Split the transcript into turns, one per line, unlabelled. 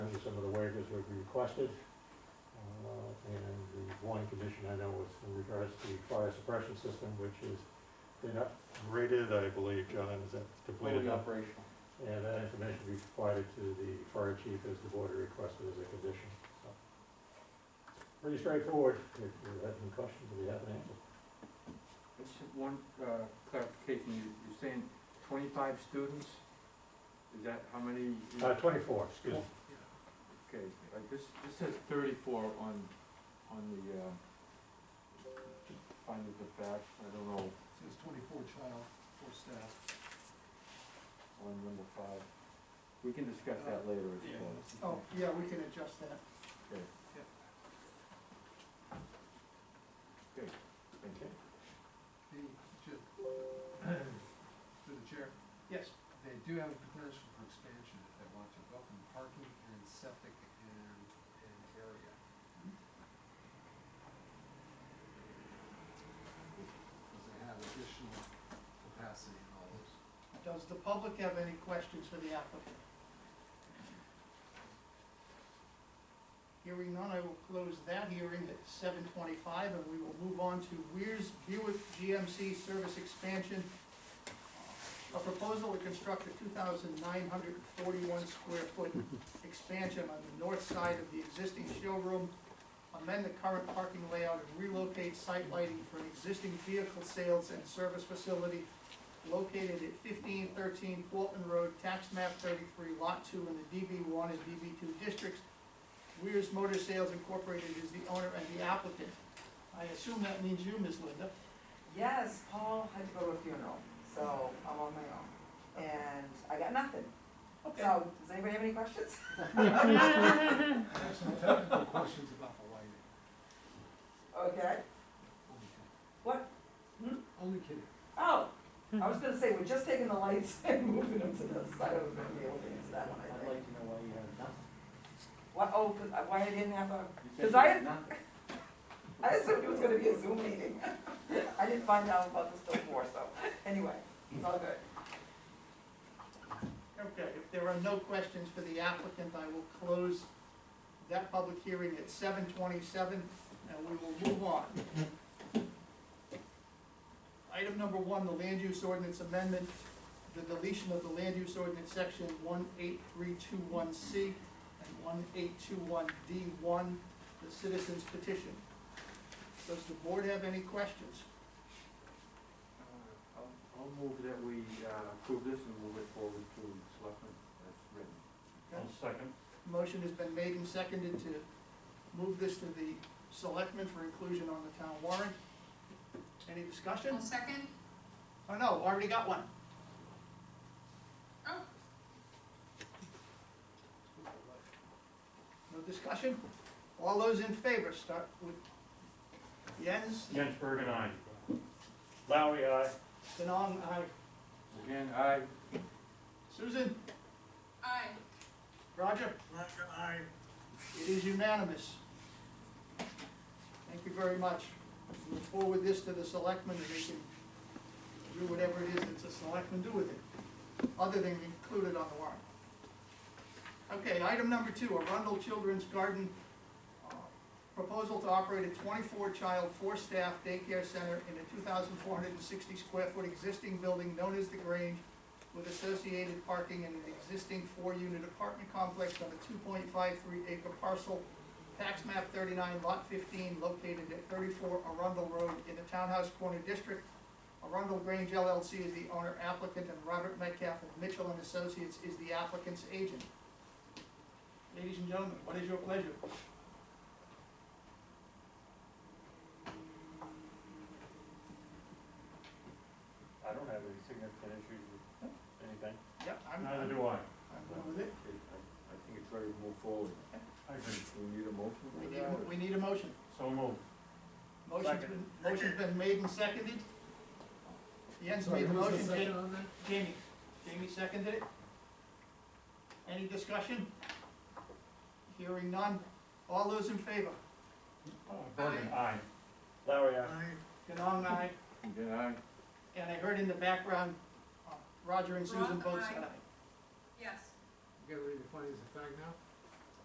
as was requested. Uh, And the one condition I know was in regards to the fire suppression system, which is been upgraded, I believe, John, is that completed?
Fully
now?
operational.
And that information will be provided to the fire chief as the board requested as a condition, so. Pretty straightforward, if you have any questions, we have an answer.
Just one uh, clarification, you- you're saying twenty-five students? Is that how many?
Uh, twenty-four, excuse me.
Okay, uh, this, this says thirty-four on, on the, uh, findings of fact, I don't know,
Says twenty-four child, four staff.
on number five. We can discuss that later as well.
Oh, yeah, we can adjust that.
Okay.
Yep.
Okay, thank you.
The, ju- through the chair. Yes. They do have a potential for expansion if they want to, both in parking and septic and, and area. Because they have additional capacity in all those.
Does the public have any questions for the applicant? Hearing none, I will close that hearing at seven twenty-five, and we will move on to Weir's Buick GMC Service Expansion. A proposal to construct a two thousand nine hundred and forty-one square foot expansion on the north side of the existing showroom, amend the current parking layout, and relocate site lighting for an existing vehicle sales and service facility located at fifteen thirteen Portland Road, tax map thirty-three, lot two, in the DB one and DB two districts. Weir's Motor Sales Incorporated is the owner and the applicant. I assume that means you, Ms. Linda.
Yes, Paul had to go to a funeral, so I'm on my own. And I got nothing. So, does anybody have any questions?
I have some technical questions about the lighting.
Okay,
Only kidding.
what?
Only kidding.
Oh, I was gonna say, we're just taking the lights and moving them to the side of the building, so that one, I
I'd
think.
like to know why you have nothing.
What, oh, 'cause I- why I didn't have a,
You said
'Cause
you
I-
had nothing.
I assumed it was gonna be a Zoom meeting. I didn't find out about this till four, so, anyway, it's all good.
Okay, if there are no questions for the applicant, I will close that public hearing at seven twenty-seven, and we will move on. Item number one, the land use ordinance amendment, the deletion of the land use ordinance section one eight three two one C and one eight two one D one, the citizens petition. Does the board have any questions?
Uh, I'll I'll move that we uh, approve this and move it forward to selectmen as written.
second.
Motion has been made and seconded to move this to the selectmen for inclusion on the town warrant. Any discussion?
I'll second.
Oh, no, already got one.
Oh.
No discussion? All those in favor, start with Jens,
Jens Bergen, aye. Lowry, aye.
Denon, aye.
Again, I,
Susan?
Aye.
Roger?
Roger, aye.
It is unanimous. Thank you very much. We'll forward this to the selectmen, and they can do whatever it is that the selectmen do with it, other than include it on the warrant. Okay, item number two, Arundel Children's Garden, uh, proposal to operate a twenty-four-child, four-staff daycare center in a two thousand four hundred and sixty square foot existing building known as The Grange, with associated parking in an existing four-unit apartment complex on a two point five three acre parcel, tax map thirty-nine, lot fifteen, located at thirty-four Arundel Road in the Townhouse Corner District. Arundel Grange LLC is the owner applicant, and Robert Metcalf of Mitchell and Associates is the applicant's agent. Ladies and gentlemen, what is your pleasure?
I don't have any significant issues with anything.
Yep, I'm, I'm
Neither do I.
going with it.
I I think it's ready to move forward.
I agree.
Do we need a motion
We
for
need,
that? or-
we need a motion.
So moved.
Motion's been, motion's been made and seconded. Jens made the motion, Jake-
second on that?
Jamie, Jamie seconded it. Any discussion? Hearing none, all those in favor?
Bergen,
aye. Lowry, aye.
Aye.
Ganong, aye,
Again, I.
and I heard in the background, uh, Roger and Susan
Ron,
both
aye.
said aye.
Yes.
You got ready to find as a fact now?